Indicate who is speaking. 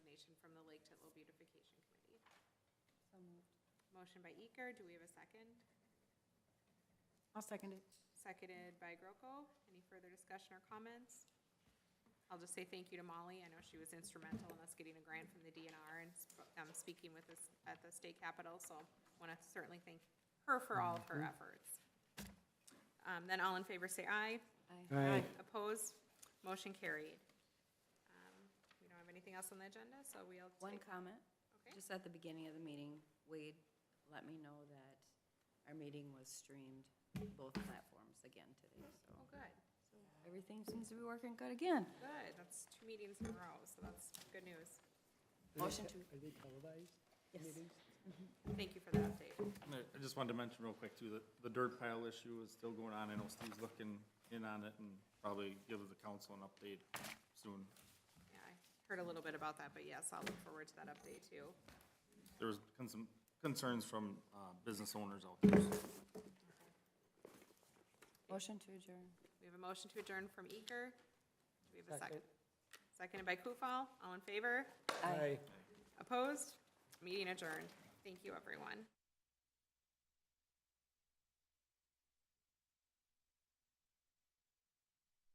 Speaker 1: So moved.
Speaker 2: Motion by Eker, do we have a second?
Speaker 1: I'll second it.
Speaker 2: Seconded by Groko. Any further discussion or comments? I'll just say thank you to Molly. I know she was instrumental in us getting a grant from the DNR and sp- um, speaking with us at the state capitol, so want to certainly thank her for all of her efforts. Um, Then all in favor say aye.
Speaker 3: Aye.
Speaker 2: Opposed? Motion carried. Um, We don't have anything else on the agenda, so we'll take.
Speaker 4: One comment,
Speaker 2: Okay.
Speaker 4: just at the beginning of the meeting, Wade let me know that our meeting was streamed, both platforms again today,
Speaker 2: Oh,
Speaker 4: so
Speaker 2: good.
Speaker 4: everything seems to be working good again.
Speaker 2: Good, that's two meetings in a row, so that's good news.
Speaker 4: Motion to,
Speaker 3: Are they televised
Speaker 4: yes,
Speaker 3: meetings?
Speaker 2: Thank you for that update.
Speaker 5: And I I just wanted to mention real quick too, that the dirt pile issue is still going on. I know Steve's looking in on it and probably give the council an update soon.
Speaker 2: Yeah, I heard a little bit about that, but yes, I'll look forward to that update too.
Speaker 5: There was con- some concerns from uh, business owners out there. so.
Speaker 4: motion to adjourn.
Speaker 2: We have a motion to adjourn from Eker. Do we have a second?
Speaker 3: Second.
Speaker 2: Seconded by Kufal. All in favor?
Speaker 3: Aye.
Speaker 2: Opposed? Meeting adjourned. Thank you, everyone.